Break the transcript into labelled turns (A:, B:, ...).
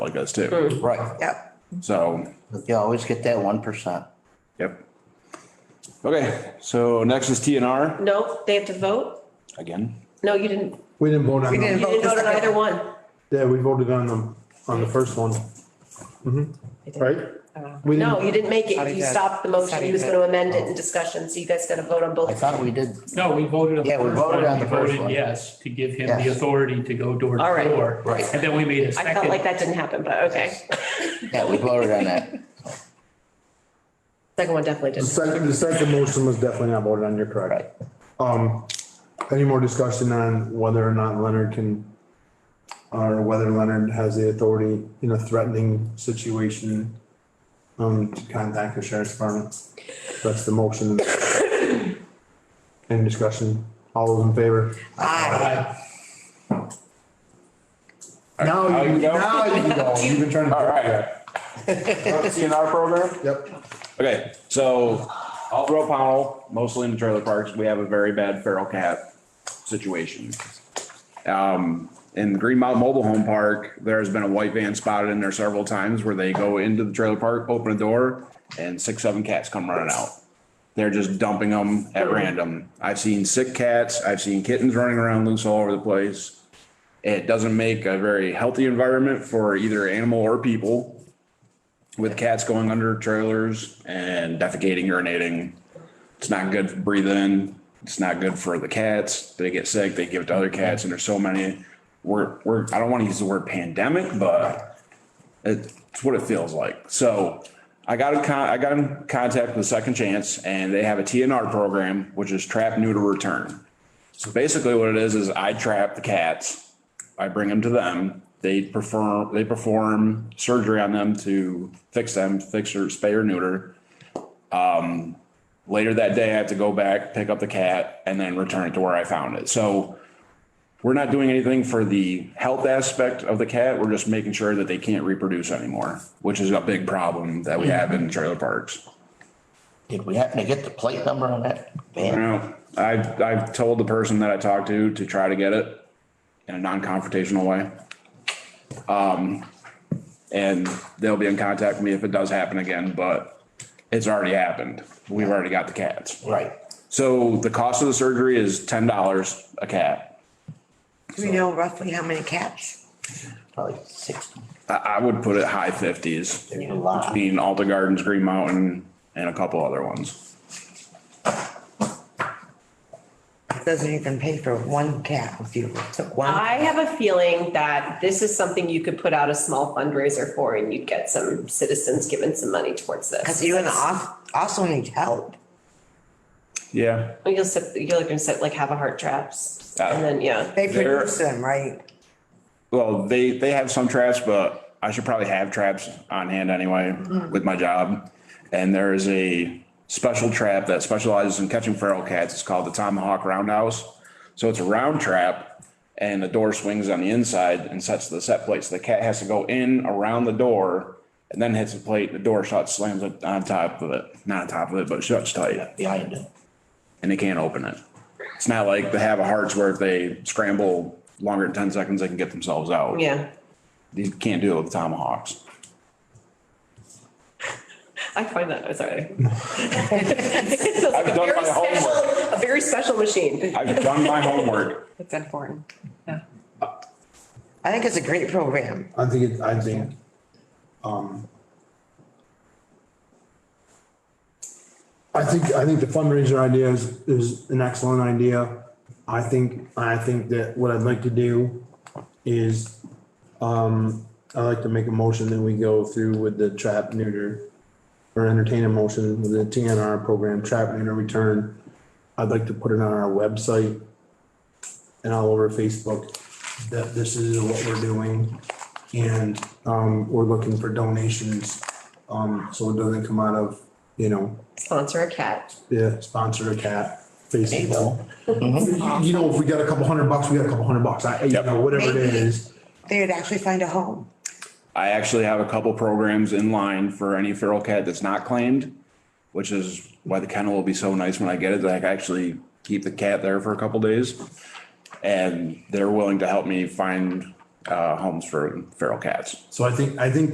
A: like us too.
B: Right.
C: Yep.
A: So,
B: You always get that one percent.
A: yep. Okay, so next is T and R
D: No, they have to vote?
A: again.
D: No, you didn't,
E: We didn't vote on
C: We
D: you
C: didn't
E: them.
D: didn't
C: vote the
D: vote on
C: second.
D: either one.
E: Yeah, we voted on them, on the first one. Mhm.
C: Uh,
E: Right? We
D: Mm-hmm. No,
E: didn't,
D: you didn't make
F: Thought
D: it.
F: he
D: You
F: did.
D: stopped the motion.
F: Thought
D: He
F: he
D: was
F: did.
D: gonna amend it in discussion, so you guys gotta vote on
B: I
D: both.
B: thought we did,
G: No, we voted on the
B: Yeah, we
G: first
B: voted
G: one.
B: on
G: We
B: the first
G: voted
B: one.
G: Yes, to give him
B: Yes.
G: the authority to go door to
D: All right.
G: door.
B: Right.
G: And then we made a
D: I felt like
G: second.
D: that didn't happen, but okay.
B: yeah, we voted on that.
D: Second one definitely
E: the
D: didn't.
E: second, the second motion was definitely not voted on, you're
B: Right.
E: correct. Um, any more discussion on whether or not Leonard can, or whether Leonard has the authority in a threatening situation um, to contact the sheriff's department? That's the motion. Any discussion? All those in favor?
C: Aye.
G: Aye.
E: Now,
A: Now you
E: you-
A: go.
E: now you go. You've been trying to.
A: All right. T and R program?
E: Yep.
A: Okay, so all throughout Powell, mostly in the trailer parks, we have a very bad feral cat situation. Um, in Green Mountain Mobile Home Park, there's been a white van spotted in there several times where they go into the trailer park, open a door, and six, seven cats come running out. They're just dumping them at random. I've seen sick cats, I've seen kittens running around loose all over the place. It doesn't make a very healthy environment for either animal or people with cats going under trailers and defecating, urinating. It's not good for breathing. It's not good for the cats. They get sick, they give it to other cats, and there's so many. We're, we're, I don't want to use the word pandemic, but it's what it feels like. So I got a con, I got in contact with Second Chance and they have a TNR program, which is trap, neuter, return. So basically what it is, is I trap the cats. I bring them to them. They perform, they perform surgery on them to fix them, fix or spay or neuter. Um, later that day, I have to go back, pick up the cat and then return it to where I found it. So we're not doing anything for the health aspect of the cat. We're just making sure that they can't reproduce anymore, which is a big problem that we have in trailer parks.
B: Did we happen to get the plate number on that
A: You
B: van?
A: know, I've, I've told the person that I talked to to try to get it in a non-confrontational way. Um, and they'll be in contact with me if it does happen again, but it's already happened. We've already got the cats.
B: Right.
A: So the cost of the surgery is ten dollars a cat.
C: Do we know roughly how many cats?
B: Probably sixty.
A: I, I would put it high fifties,
B: There's a lot.
A: being Alta Gardens, Green Mountain, and a couple other ones.
C: Doesn't even pay for one cat if you took one.
D: I have a feeling that this is something you could put out a small fundraiser for and you'd get some citizens giving some money towards
C: Cause
D: this.
C: you and I also need help.
A: Yeah.
D: You'll set, you're gonna set, like, have a heart traps
A: Uh,
D: and then, yeah.
C: They
A: They're-
C: produce them, right?
A: Well, they, they have some traps, but I should probably have traps on hand anyway with my job. And there is a special trap that specializes in catching feral cats. It's called the Tomahawk Roundhouse. So it's a round trap and the door swings on the inside and sets the set plate. So the cat has to go in around the door and then hits the plate. The door shuts, slams it on top of it, not on top of it, but shuts tight
B: Behind it.
A: and they can't open it. It's not like they have a hearts where if they scramble longer than 10 seconds, they can get themselves out.
D: Yeah.
A: You can't do it with tomahawks.
D: I find that, I'm sorry.
A: I've done my homework.
D: A very special machine.
A: I've done my homework.
F: It's important. Yeah.
C: I think it's a great program.
E: I think, it- I think, um, I think, I think the fundraiser idea is, is an excellent idea. I think, I think that what I'd like to do is, um, I'd like to make a motion that we go through with the trap neuter or entertain a motion with the TNR program, trap neuter return. I'd like to put it on our website and all over Facebook that this is what we're doing. And um, we're looking for donations, um, so it doesn't come out of, you know,
D: Sponsor a cat.
E: yeah, sponsor a cat,
B: There you
E: basically.
B: go.
E: You you know, if we got a couple hundred bucks, we got a couple hundred bucks, I, you
A: Yep.
E: know, whatever it
C: Maybe.
E: is.
C: They'd actually find a home.
A: I actually have a couple programs in line for any feral cat that's not claimed, which is why the kennel will be so nice when I get it that I can actually keep the cat there for a couple days. And they're willing to help me find
H: uh, homes for feral cats.
A: So I think, I think